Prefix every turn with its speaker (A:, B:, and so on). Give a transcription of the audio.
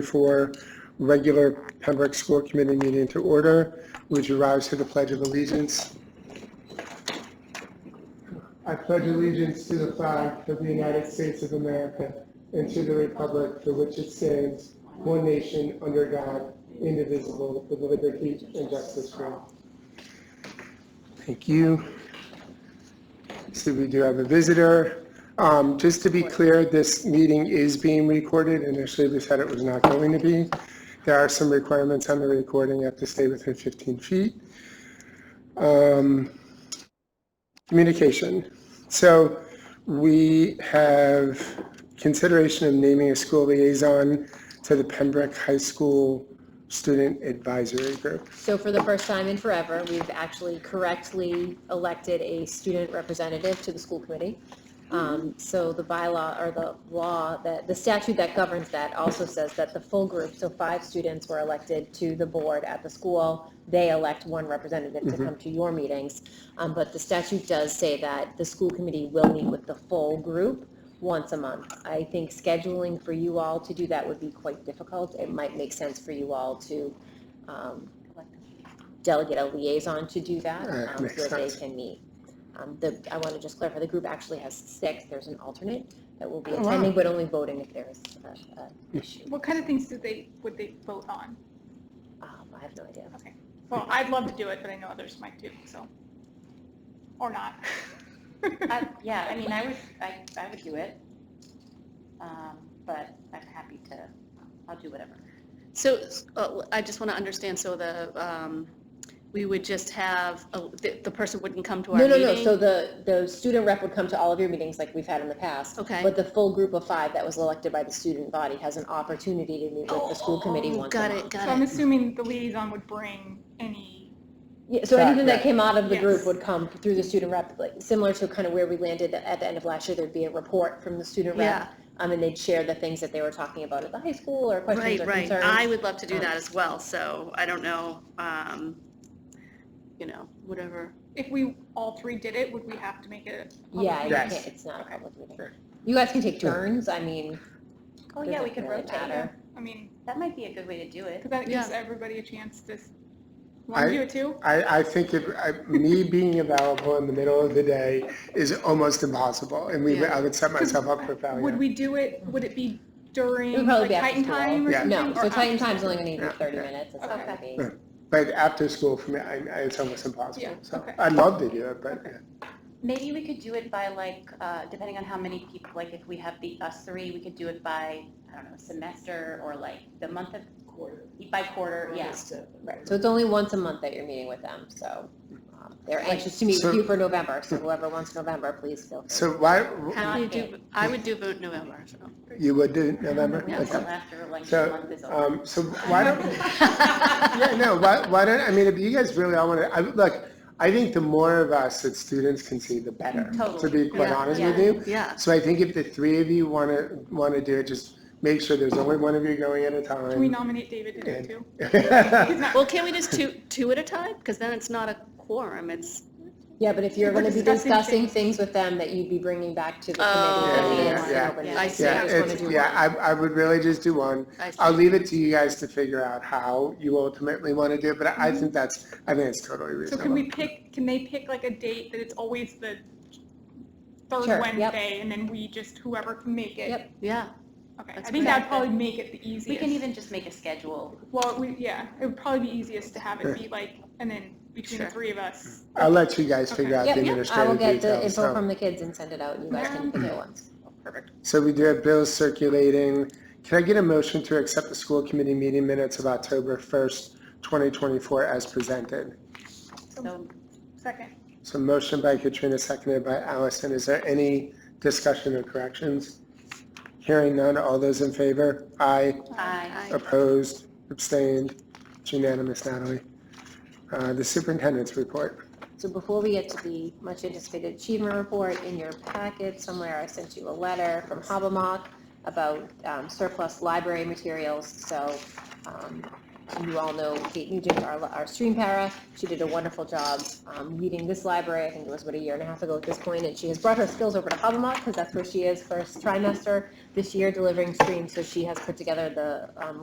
A: 2024 regular Pembroke School Committee meeting to order. Would you rise to the Pledge of Allegiance? I pledge allegiance to the flag of the United States of America and to the republic for which it stands, one nation, under God, indivisible, with liberty and justice for all. Thank you. So we do have a visitor. Um, Just to be clear, this meeting is being recorded. Initially, we said it was not going to be. There are some requirements on the recording. You have to stay within 15 feet. Um, Communication. So we have consideration of naming a school liaison to the Pembroke High School Student Advisory Group.
B: So for the first time in forever, we've actually correctly elected a student representative to the school committee. Um,
A: Mm-hmm.
B: So the bylaw or the law, that the statute that governs that also says that the full group, so five students were elected to the board at the school. They elect one representative to
A: Mm-hmm.
B: come to your meetings. Um, But the statute does say that the school committee will meet with the full group once a month. I think scheduling for you all to do that would be quite difficult. It might make sense for you all to um, delegate a liaison to do that,
A: Alright,
B: um,
A: makes
B: so that they
A: sense.
B: can meet. Um, The, I want to just clarify, the group actually has six, there's an alternate that will be
A: Oh, wow.
B: attending, but only voting if there's a, a issue.
C: What kind of things do they, would they vote on?
B: Um, I have no idea.
C: Well, I'd love to do it, but I know others might too, so. Or not.
D: I- Yeah, I mean, I would, I, I would do it. Um, But I'm happy to, I'll do whatever.
E: So uh, I just want to understand, so the, um, we would just have, a- the the person wouldn't come to our
B: No, no, no,
E: meeting?
B: so the, the student rep would come to all of your meetings like we've had in the past.
E: Okay.
B: But the full group of five that was elected by the student body has an opportunity to meet with the school committee
E: Oh,
B: once a month.
E: Got it,
C: So I'm
E: got it.
C: assuming the liaison would bring any,
B: Yeah, so
A: Got
B: anything
A: that.
B: that came out of the group
C: Yes.
B: would come through the student rep, like, similar to kind of where we landed at the end of last year, there'd be a report from the student
E: Yeah,
B: rep. Um, and they'd share the things that they were talking about at the high school or questions
E: right,
B: or
E: right. I
B: concerns.
E: would love to do that as well, so I don't know, um, you know, whatever.
C: if we all three did it, would we have to make it? a public
B: Yeah, you
C: meeting?
A: Yes.
B: can't, it's not a
C: Okay.
B: public meeting.
A: Right.
B: You guys can take turns, I mean,
D: Oh, yeah, we could
B: Doesn't really
D: rotate.
B: matter.
C: I mean,
D: That might be a good way to do it.
C: because that gives
E: Yeah.
C: everybody a chance to, s- want
A: I-
C: to do it too?
A: I, I think if, I- me being available in the middle of the day is almost impossible, and we, I would set myself up for
C: Would
A: failure.
C: we do it, would it be
B: It would
C: during
B: probably
C: like
B: be after
C: Titan
B: school.
C: time or
A: Yeah.
C: something?
B: no, so
C: or
B: Titan
C: after-
B: Time's only gonna need
A: Yeah,
B: thirty
A: yeah.
B: minutes, it's not gonna be.
A: Okay. But after school, for me, I, I- it's almost impossible,
C: Yeah,
A: so
C: okay.
A: I'd love to do it, but yeah.
D: Maybe we could do it by like, uh, depending on how many people, like if we have the, us three, we could do it by, I don't know, semester or like the month of. Quarter. By quarter, yes.
B: Right, so it's only once a month that you're meeting with them, so, um, they're anxious to meet
A: So-
B: with you for November, so whoever wants November, please feel free.
A: So why,
D: How
E: You
D: about
E: do- I would do vote November, so.
A: you would do it November?
D: Yeah,
A: Okay.
D: until after election
A: So,
D: month is over.
A: um, so why don't, yeah, no, why, why don't, I mean, if you guys really all want to, I, look, I think the more of us that students can see, the better. To
D: Totally.
A: be quite
E: Yeah,
A: honest
D: yeah.
A: with you.
E: Yeah,
A: So I think if the three of you want to, want to do it, just make sure there's only one of you going at a time.
C: Can we nominate David to do it too? He's not-
E: well, can't we just two, two at a time? Because then it's not a quorum, it's,
B: Yeah, but if you're
C: We're
B: gonna be
C: discussing
B: discussing things with them that you'd be bringing back to the
E: Oh,
B: committee,
A: Yeah,
B: it's
A: yeah,
B: an open
D: yeah.
B: meeting.
E: I see.
B: You
A: Yeah,
B: just wanna
A: it's,
B: do one.
A: yeah, I, I would really just do one.
E: I see.
A: I'll leave it to you guys to figure out how you ultimately want to do it, but I I
B: Mm-hmm.
A: think that's, I think it's totally
C: So can we
A: reasonable.
C: pick, can they pick like a date that it's always the
B: Sure, yep.
C: third Wednesday and then we just, whoever can make it?
B: Yep.
E: yeah.
C: Okay, I
E: That's
C: think that'd
D: perfect.
C: probably make it the easiest.
D: We can even just make a schedule.
C: Well, we, yeah, it would probably be easiest to have it be like, and then between the
E: Sure.
C: three of us.
A: I'll let you guys figure out
B: Yep,
A: the
B: yep, I will
A: administrative
B: get the
A: details.
B: info
A: So,
B: from the kids and send it out, and you guys can pick it once.
C: Perfect.
A: so we do have bills circulating. Can I get a motion to accept the school committee meeting minutes of October 1st, 2024 as presented?
D: So
C: Second.
A: So motion by Katrina, seconded by Allison. Is there any discussion or corrections? Hearing none, all those in favor? Aye.
D: I,
A: Opposed, abstained, it's unanimous, Natalie. Uh, The superintendent's report.
B: So before we get to the much anticipated achievement report, in your packet somewhere, I sent you a letter from Habermock about um, surplus library materials, so um, you all know Kate Nugent, our, our stream para. She did a wonderful job um, leading this library, I think it was about a year and a half ago at this point, and she has brought her skills over to Hobomok because that's where she is first trimester this year delivering streams. So she has put together the um,